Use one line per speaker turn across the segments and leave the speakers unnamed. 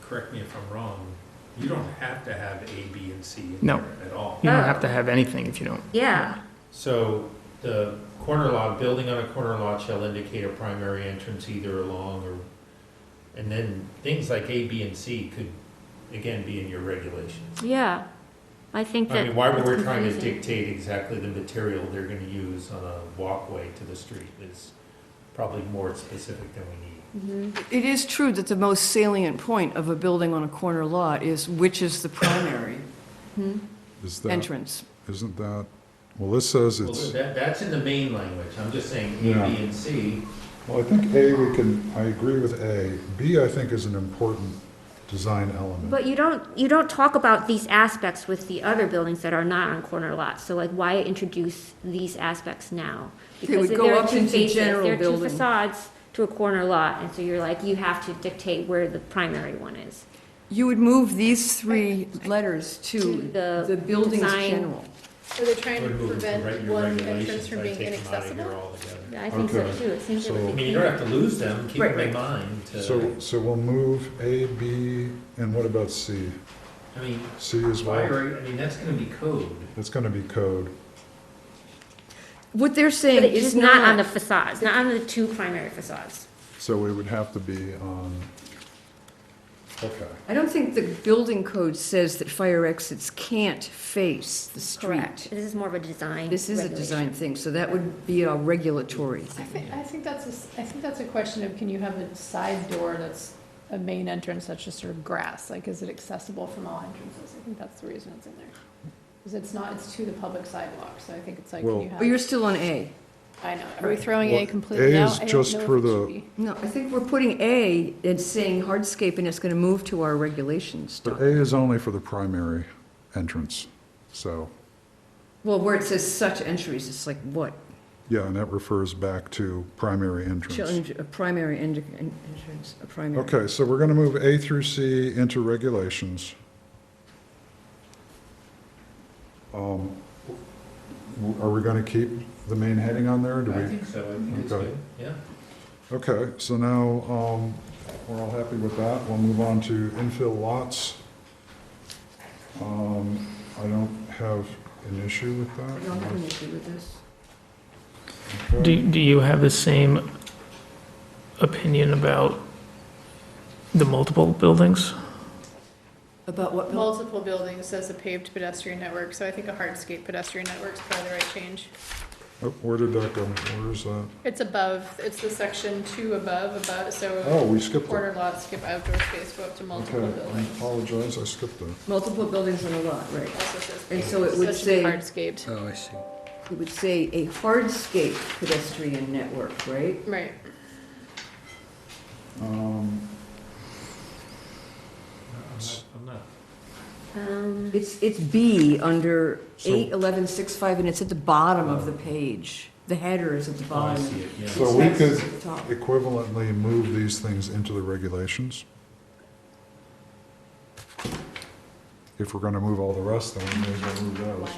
correct me if I'm wrong, you don't have to have A, B, and C in
No.
there at all.
You don't have to have anything if you don't.
Yeah,
So the corner lot, building on a corner lot shall indicate a primary entrance either along or, and then things like A, B, and C could, again, be in your regulations.
yeah. I think that.
I mean, why were we
that's
trying to
confusing.
dictate exactly the material they're gonna use on a walkway to the street is probably more specific than we need.
It is true that the most salient point of a building on a corner lot is which is the primary
Is that,
entrance.
isn't that, well, this says
Well,
it's,
that, that's in the main language, I'm just saying A,
Yeah.
B, and C,
well, I think A, we can, I agree with A. B, I think is an important design element.
But you don't, you don't talk about these aspects with the other buildings that are not on corner lots, so like, why introduce these aspects now?
They would
Because
go
there are
up
two
into
faces-
general
There are two
building.
facades to a corner lot, and so you're like, you have to dictate where the primary one is.
You would move these three letters
To
to
the
the buildings
design.
general.
So they're trying to
would move from
prevent
reg- your
one
regulations
entrance from
by
being
taking them out of here
inaccessible?
altogether.
I think so
Okay.
too, it seems it
So-
I
would
mean,
be
you don't have to lose them, keep
Right,
them in
right.
mind to.
So, so we'll move A, B, and what about C?
I mean,
C as well?
fire, I mean, that's gonna be code.
It's gonna be code.
What they're
But
saying
it's
is
just not on the
not,
facades, not on the two primary facades.
So it would have to be on, okay.
I don't think the building code says that fire exits can't face the
Correct.
street.
This is more of a design.
This is a
regulation.
design thing, so that would be a regulatory
I
thing.
think, I think that's, a s- I think that's a question of, can you have a side door that's a main entrance that's just sort of grass? Like, is it accessible from all entrances? I think that's the reason it's in there. Because it's not, it's to the public sidewalk, so I think it's like, can
Well-
you
But you're
have,
still on A.
I know, are we throwing A
Well,
completely
A
out?
is
I don't
just
know if
for
it should
the-
be.
No, I think we're putting A and saying hardscape, and it's going to move to our regulations.
But A is only for the primary entrance, so,
Well, where it says such entries, it's like, what?
yeah, and that refers back to primary
Shall
entrance.
int- A primary indi- en- entrance, a primary.
Okay, so we're gonna move A through C into regulations. Um, w- Are we gonna keep the main heading on there? Do
I
we?
think so, I think it's
Okay.
good, yeah.
Okay, so now, um, we're all happy with that. We'll move on to infill lots. Um, I don't have an issue with
I don't have an
that.
issue with this.
Do,
Okay.
do you have the same opinion about the multiple buildings?
About what, Bill?
Multiple buildings says a paved pedestrian network, so I think a hardscape pedestrian network's probably the right change.
Oh, Where did that go? Where is that?
It's above, it's the section two above, above,
Oh,
so
we skipped it.
corner lots skip outdoor space, go up to multiple
Okay, I
buildings.
apologize, I skipped that.
multiple buildings in a lot, right.
Also says
And so it
paved,
would
says to be
say-
Hardscaped,
Oh, I see.
It would say a hardscape pedestrian network, right?
right.
Um,
I'm not- I'm not
Um,
It's, it's B under
So-
eight eleven six five, and it's at the bottom of the page. The header is at the
Oh, I see
bottom.
it, yeah.
So we
It's next
could-
to the top.
Equivalently, move these things into the regulations. If we're gonna move all the rest, then we may as well move those.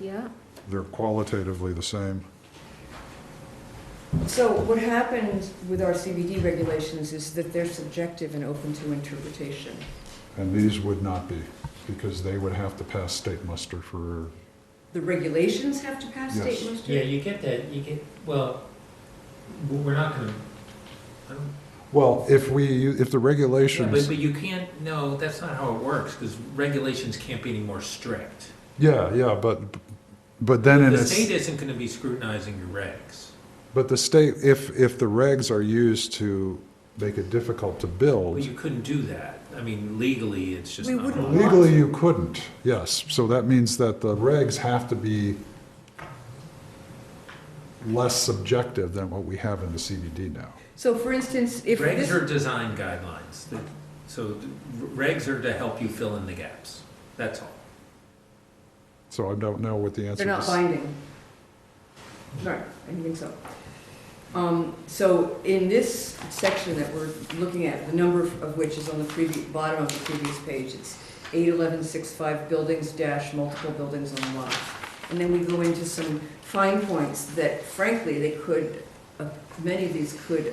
yeah.
They're qualitatively the same.
So what happens with our CBD regulations is that they're subjective and open to interpretation.
And these would not be, because they would have to pass state muster for,
The regulations have to pass
Yes.
state muster?
Yeah, you get that, you get, well, w- we're not gonna, I don't-
well, if we, if the
yeah, but,
regulations,
but you can't, no, that's not how it works, because regulations can't be any more strict.
yeah, yeah, but, but then in a.
The
s-
state isn't gonna be scrutinizing your regs.
But the state, if, if the regs are used to make it difficult to
Well,
build,
you couldn't do that. I mean, legally, it's just
We
not.
wouldn't
allowed.
legally you couldn't, yes. So that means that the regs have to be less subjective than what we have in the CBD now.
So for instance, if
Regs
this,
are design guidelines, that- so th- regs are to help you fill in the gaps, that's all.
So I don't know what the answer
they're not
is.
binding. Right, I don't think so. Um, so in this section that we're looking at, the number of which is on the previous, bottom of the previous page, it's eight eleven six five buildings dash multiple buildings on lot. And then we go into some fine points that frankly, they could, uh, many of these could